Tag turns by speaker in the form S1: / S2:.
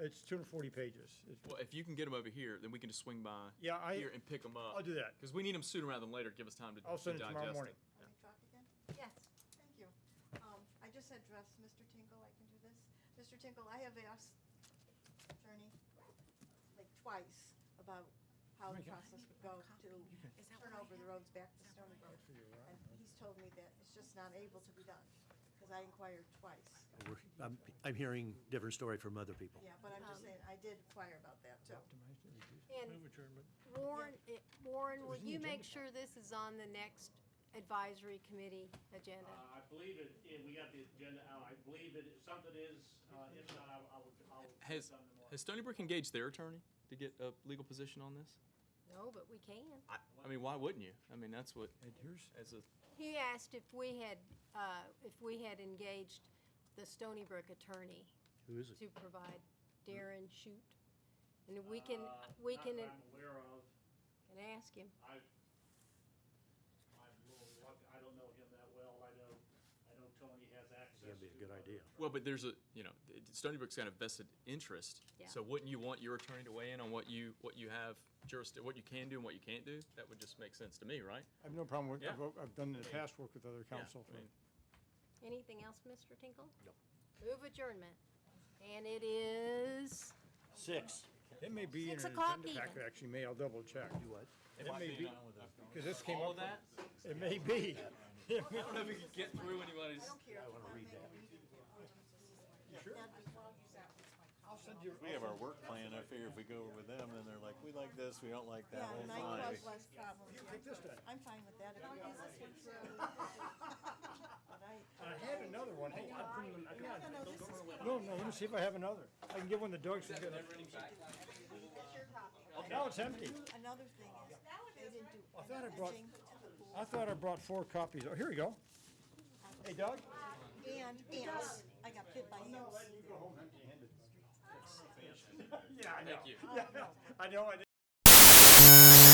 S1: It's 240 pages. It's-
S2: Well, if you can get them over here, then we can just swing by
S1: Yeah, I-
S2: here and pick them up.
S1: I'll do that.
S2: Because we need them sooner rather than later. to Give us time to
S1: I'll send
S2: to
S1: it tomorrow
S2: digest
S1: morning.
S3: Can I talk again?
S4: Yes.
S3: Thank you. Um, I just addressed Mr. Tinkle, I can do this. Mr. Tinkle, I have asked attorney like twice about
S4: Oh
S3: how the process would go to
S4: Is that
S3: turn
S4: what I
S3: over the
S4: have?
S3: roads back to
S4: Is that
S3: Stony
S4: what I
S3: Brook.
S1: have? Good for you, right?
S3: And he's told me that it's just not able to be done, because I inquired twice.
S5: We're- I'm, I'm hearing different story from other people.
S3: Yeah, but I'm just saying, I did inquire about that too.
S4: And Warren, it- Warren, will you make sure this is on the next advisory committee
S6: Uh,
S4: agenda?
S6: I believe it, yeah, we got the agenda out, I believe it, if something is, uh, if not, I will- I will, I will. get
S2: Has,
S6: something tomorrow.
S2: has Stony Brook engaged their attorney to get a legal position on this?
S4: No, but we can.
S2: I, I mean, why wouldn't you? I mean, that's what,
S1: And here's,
S2: as a,
S4: He asked if we had, uh, if we had engaged the Stony Brook attorney
S5: Who is
S4: to
S5: it?
S4: provide Darren Shute. And we can,
S6: Uh,
S4: we
S6: not
S4: can,
S6: that I'm aware of,
S4: can ask him.
S6: I, I'm a little reluctant. I don't know him that well, I know, I know Tony has access to.
S5: That'd be a good idea.
S2: well, but there's a, you know, it- Stony Brook's got a vested interest.
S4: Yeah.
S2: So wouldn't you want your attorney to weigh in on what you, what you have jurisdiction, what you can do and what you can't do? That would just make sense to me, right?
S1: I have no problem with, I've,
S2: Yeah.
S1: I've done in the past work with other
S2: Yeah,
S1: council.
S2: I mean,
S4: Anything else, Mr. Tinkle?
S5: No.
S4: Move adjournment. And it is,
S5: Six.
S1: It may be in
S4: Six
S1: an
S4: o'clock
S1: agenda pack,
S4: even.
S1: actually, may, I'll double check.
S5: Do what?
S2: It might
S1: may
S2: be
S1: be-
S2: not with us.
S1: Because this came
S2: All of
S1: up,
S2: that?
S1: it may be.
S2: I don't know if we could get through anybody's.
S3: I don't care.
S5: I wanna read that.
S3: I'll send you.
S7: We have our work plan, I figure if we go over them, then they're like, we like this, we don't like
S3: Yeah,
S7: that, we'll
S3: and I
S7: find.
S3: caused less problems. I'm fine with that. But I-
S1: I had another one. Hey, I-
S3: No, no, no, this is.
S1: No, no, let me see if I have another. I can give one to Doug. so he's got a- Now it's empty.
S3: Another thing is, they
S1: I thought I
S3: didn't do
S1: brought-
S3: anything to the pool.
S1: I thought I brought four copies. Oh, here we go. Hey, Doug?
S3: And ants, I got bit by ants.
S1: Yeah, I know.
S2: Thank you.
S1: I know, I